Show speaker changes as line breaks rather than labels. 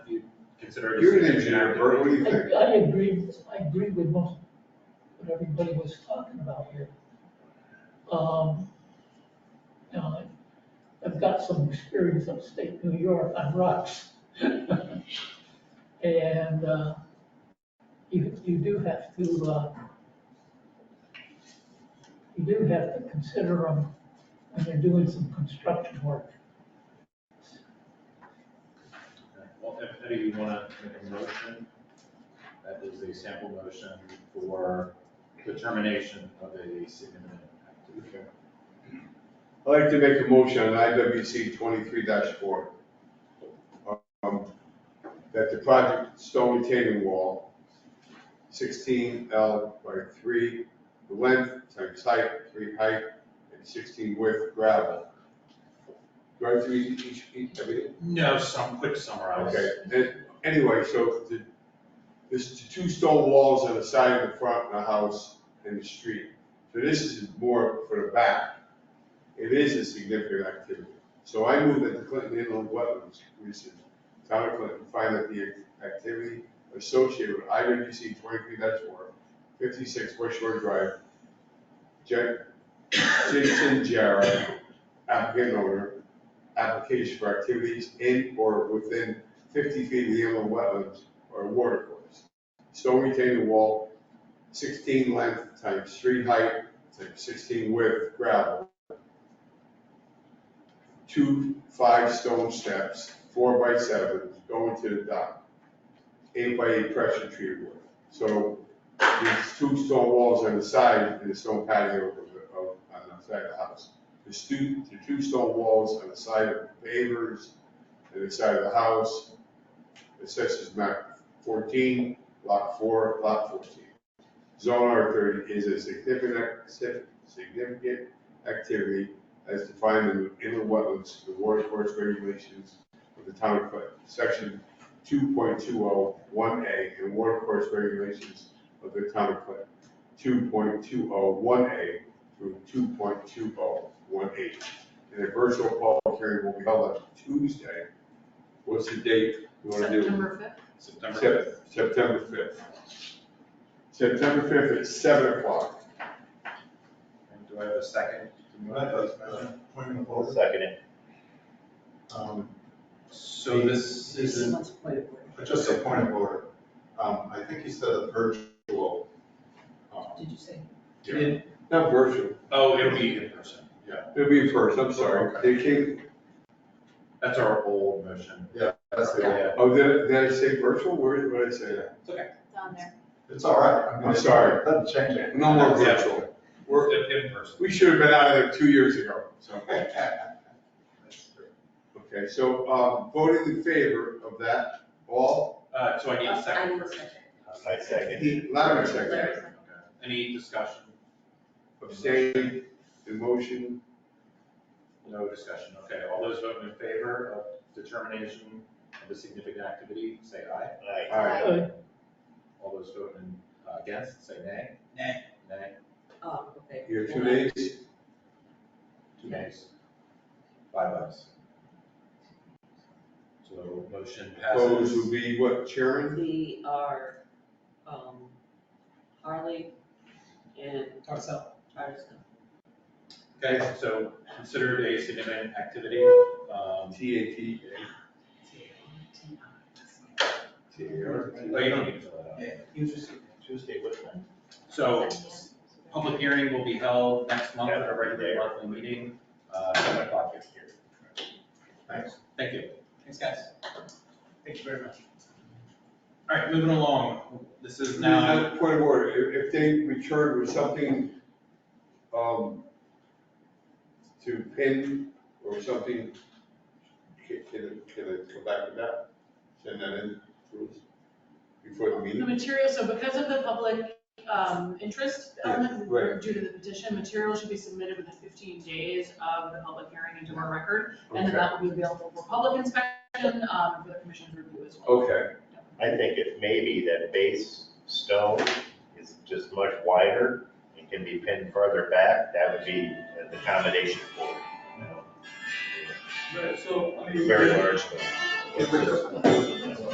consider it. a
You're an
signature
engineer,
act.
Bert, what do you
I,
think?
I agree, I agree with most, what everybody was talking about here. Um, you know, I- I've got some experience upstate New York on rocks. And, uh, you, you do have to, uh, you do have to consider them when you're doing some construction work.
Well, if any of you wanna make a motion, that is a sample motion for determination of a significant activity.
I'd like to make a motion on IWC twenty-three four. Um, That the project stone retaining wall, sixteen L by three length times height, three height, and sixteen width gravel. Do I have to read each, each, everything?
No, some quick summarize.
Okay, then, anyway, so the, there's two stone walls on the side of the front of the house and the street. So this is more for the back. It is a significant activity. So I move that the Clinton Inland Wetlands Commission, Town of Clinton, find that the activity associated with IWC twenty-three 4 56 West Shore Drive, Jack, Jason Jarrett, applicant owner, application for activities in or within fifty feet of the inland wetlands or watercourse. Stone retaining wall, sixteen length times three height times sixteen width gravel. Two five stone steps, four by seven, going to the dock. Eight by eight pressure treated wood. So these two stone walls on the side and the stone patio of, the- of, on the side of the house. The stu, the two stone walls on the side of the pavers and the side of the house. Assessors map fourteen, lot four, lot fourteen. Zone R thirty is a significant, ac- sig- significant activity as defined in the inland wetlands, the water course regulations of the town of Clinton, section two point two oh one A and water course regulations of the town of Clinton, two point two oh one A through two point two oh one eight. And a virtual public hearing will be held on Tuesday. What's the date you want to do?
September fifth,
September.
Sep- September fifth. September fifth at seven o'clock.
And Do I have a second?
Second it.
Um,
So this
Is it-
let's play it.
but Just a point of order. Um, I think you said a virtual. um,
Did you say?
It-
Uh, Not virtual,
Oh, it'll be in person.
it'll be first, I'm sorry. They came,
That's our old motion.
That's the
Yeah.
old,
oh, did, did I say virtual? Where, what did I say that?
Down there.
it's all right. I mean,
I'm sorry.
Doesn't change it.
No more
Yeah.
virtual. We're,
We're in person.
we should have been out of there two years ago, so. Okay, so, uh, voting in favor of that, all,
Uh, so I need a
I
second
will
first.
second.
I second.
Louder second.
Larry second.
Okay. Any discussion?
Abstain. the motion,
No discussion, okay. All those voting in favor of determination of a significant activity, say aye.
Aye.
aye.
Uh,
All those voting uh, against, say nay.
Nay.
Nay,
Oh, okay.
Your two nays,
two nays. Five ayes. So motion
opposed
passes.
would be what, Sharon?
We are, um, Harley and. Ourselves.
Okay, so considered a significant activity. um,
T A T A T A R.
Oh, you don't need to fill that out.
Tuesday, what time?
So public hearing will be held next month at our regular monthly meeting, uh, seven o'clock here. Thanks. Thank you. Thanks, guys. Thank you very much. All right, moving along. This is now.
Now, point of order, if, if they return with something, um, to pin or something, can, can, I- can I come back with that? Send that in to us before the
The
meeting?
materials, so because of the public um, interest element,
Yeah, right.
due to the petition, materials should be submitted within 15 days of the public hearing into our record, and then
Okay,
that will be available for public inspection, um, for the commission's review as well.
okay,
I think if maybe that base stone is just much wider and can be pinned further back, that would be an accommodation for it.
Right, so, I mean.
Very large.
If we just-